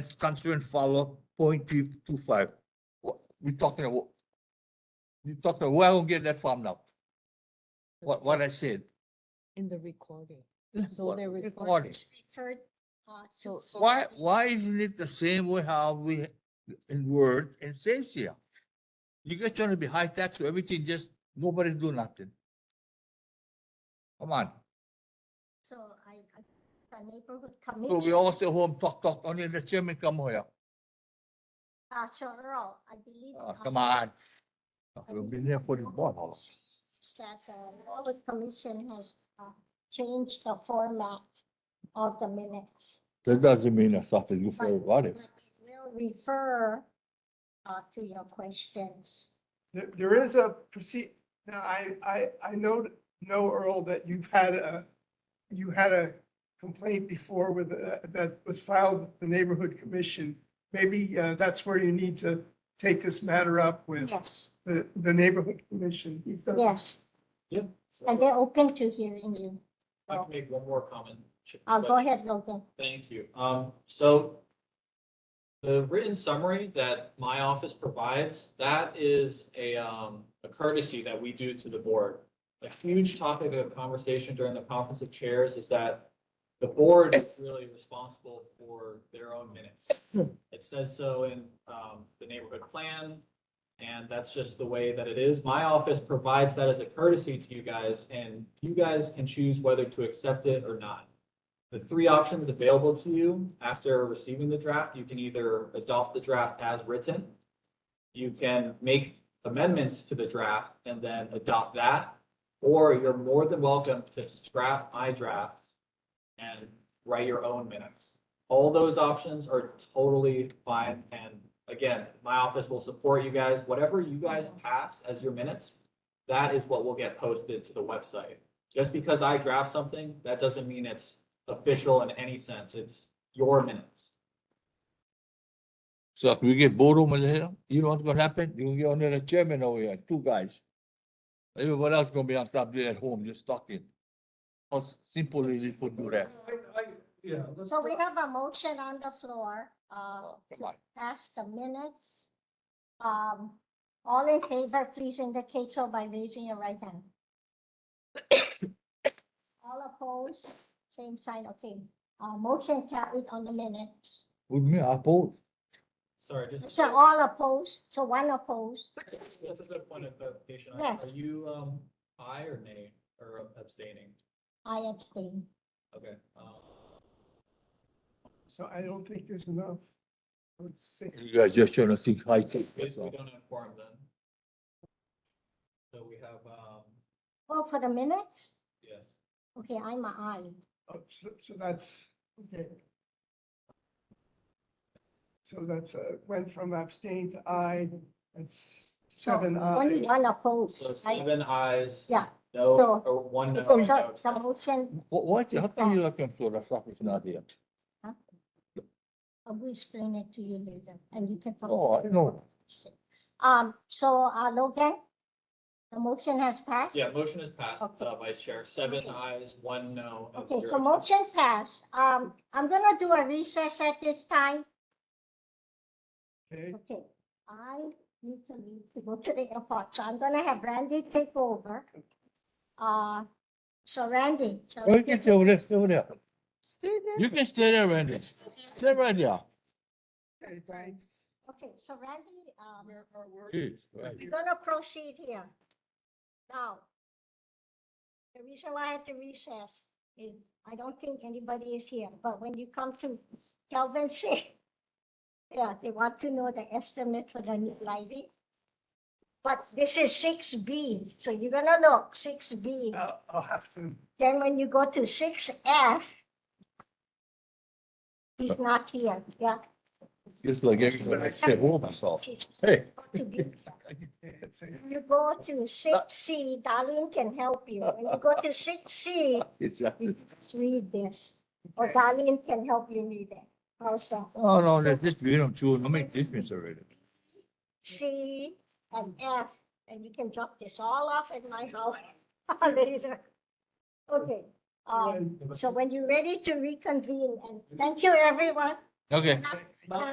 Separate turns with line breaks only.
It's considering follow point three two five. What, we're talking about? You're talking, about where I will get that from now? What, what I said?
In the recording. So
What-
they
recording.
recorded.
referred, uh, to.
So-
Why, why isn't it the same way how we in Word and says here? You guys trying to be high tax, so everything just, nobody do nothing. Come on,
So I, I, the neighborhood
so we
commission,
all stay home, talk, talk, only the chairman come here.
uh, Chorro, I believe.
Ah,
uh,
come on.
I
We've
believe
been here for this board.
she- That the neighborhood commission has, uh, changed the format of the minutes.
That doesn't mean that stuff is good
for
everybody.
But it will refer, uh, to your questions.
There, there is a proceed, now, I, I, I know, know Earl, that you've had a, you had a complaint before with, uh, that was filed with the neighborhood commission. Maybe, uh, that's where you need to take this matter up with
Yes,
the, the neighborhood commission. He's done-
yes,
Yeah.
and they're open to hearing you.
If I can make one more comment. Chip,
Uh,
but-
go ahead, Logan.
Thank you. Um, so the written summary that my office provides, that is a, um, a courtesy that we do to the board. A huge topic of conversation during the conference of chairs is that the board is really responsible for their own minutes. It says so in, um, the neighborhood plan, and that's just the way that it is. My office provides that as a courtesy to you guys, and you guys can choose whether to accept it or not the three options available to you after receiving the draft, you can either adopt the draft as written. You can make amendments to the draft and then adopt that, or you're more than welcome to scrap my draft and write your own minutes. All those options are totally fine. And again, my office will support you guys. Whatever you guys pass as your minutes, that is what will get posted to the website. Just because I draft something, that doesn't mean it's official in any sense. It's your minutes.
So if we get boredom in here, you know what's gonna happen? You're gonna get only the chairman over here, two guys. Everybody else gonna be on top there at home, just talking. How simple is it to do that?
So we have a motion on the floor, uh,
Oh, Come on.
pass the minutes. Um, all in favor, please indicate so by raising your right hand. All opposed, same sign, okay. Uh, motion carried on the minutes.
With me, I oppose.
Sorry, just.
So all opposed, so one opposed,
Just a good point of clarification. Are
Yes.
are you, um, aye or nay or abstaining?
I abstain.
Okay. um,
So I don't think there's enough. Let's see.
You guys just trying to think high tech,
We
that's
we
all.
don't have quorum then. So we have, um,
Oh, for the minutes?
yes.
Okay, I'm a aye.
Oh, so- So that's, okay. So that's, uh, went from abstain to aye, that's
So
seven
Only
ayes.
Oh, one
So
opposed, right?
seven ayes.
Yeah.
No,
So-
or one no.
So
no
the the
abstention.
motion,
Wh- What, how come you looking for the stuff is not here?
I will uh, explain it to you later, and you can talk.
Oh, I know.
Um, so, uh, Logan, the motion has passed?
Yeah, motion is passed, uh, Vice Chair. Seven
Okay.
ayes, one no. and
Okay,
zero
so
abstention.
motion passed. Um, I'm gonna do a recess at this time.
Okay,
Okay, I need to leave to go to the airport, so I'm gonna have Randy take over. Uh, so Randy. so-
Oh, You can stay over there, stay over there.
Stay
You can stay there, Randy. Stay right there.
Okay, so Randy, um,
Where are- where-
Jeez, right.
we're gonna proceed here. Now, the reason why I had to recess is I don't think anybody is here, but when you come to Calvin say, yeah, they want to know the estimate for the new lighting. But this is six B, so you're gonna look, six B.
I'll I'll have to.
Then when you go to six F, he's not here, yeah.
Just like everybody, I stay home myself.
she's
Hey.
got to be there.
it's a-
You go to six C, Darlene can help you. When you go to six C,
Exactly.
you just read this, or Darlene can help you read it. How's that?
Oh, no, that's just being them too, no make difference already.
C and F, and you can drop this all off at my house later. Okay, um, so when you're ready to reconvene, and thank you, everyone.
Okay.
Not-
Bye.